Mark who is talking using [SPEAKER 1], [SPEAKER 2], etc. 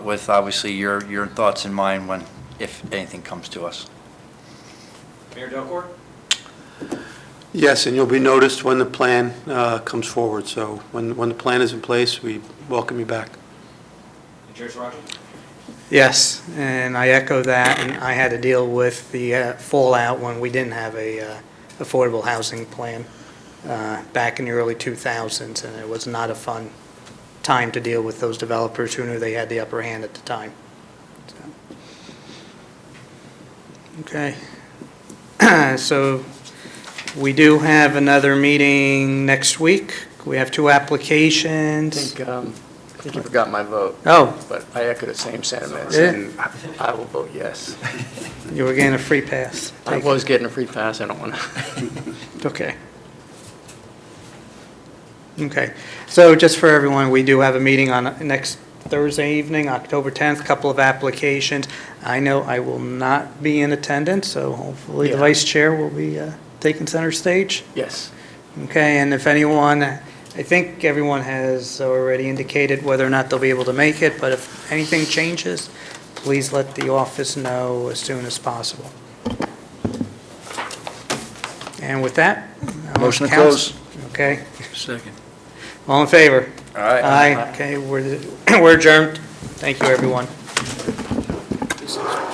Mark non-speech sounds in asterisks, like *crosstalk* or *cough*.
[SPEAKER 1] with obviously your, your thoughts in mind when, if anything comes to us.
[SPEAKER 2] Mayor Delcor?
[SPEAKER 3] Yes, and you'll be noticed when the plan uh, comes forward, so when, when the plan is in place, we welcome you back.
[SPEAKER 2] And Judge Rogers?
[SPEAKER 4] Yes, and I echo that, and I had to deal with the uh, fallout when we didn't have a uh, affordable housing plan uh, back in the early 2000s, and it was not a fun time to deal with those developers who knew they had the upper hand at the time. So. Okay, *clears throat* so we do have another meeting next week. We have two
[SPEAKER 5] I
[SPEAKER 4] applications.
[SPEAKER 5] think, um, I think you forgot my vote,
[SPEAKER 4] Oh,
[SPEAKER 5] but I echo the same sentiments,
[SPEAKER 4] Yeah.
[SPEAKER 5] and I- I will vote yes.
[SPEAKER 4] you were getting a free pass.
[SPEAKER 5] I
[SPEAKER 4] Take-
[SPEAKER 5] was getting a free pass, I don't want to.
[SPEAKER 4] Okay. Okay, so just for everyone, we do have a meeting on next Thursday evening, October 10th, couple of applications. I know I will not be in attendance, so hopefully the
[SPEAKER 5] Yeah.
[SPEAKER 4] vice chair will be uh, taking center stage.
[SPEAKER 5] *laughs* Yes,
[SPEAKER 4] Okay, and if anyone, I think everyone has already indicated whether or not they'll be able to make it, but if anything changes, please let the office know as soon as possible. And with that? I'll
[SPEAKER 1] Motion to
[SPEAKER 4] count- Okay,
[SPEAKER 1] Second.
[SPEAKER 4] all in favor?
[SPEAKER 1] All right.
[SPEAKER 4] *coughs* Aye, okay, we're we're adjourned. Thank you, everyone.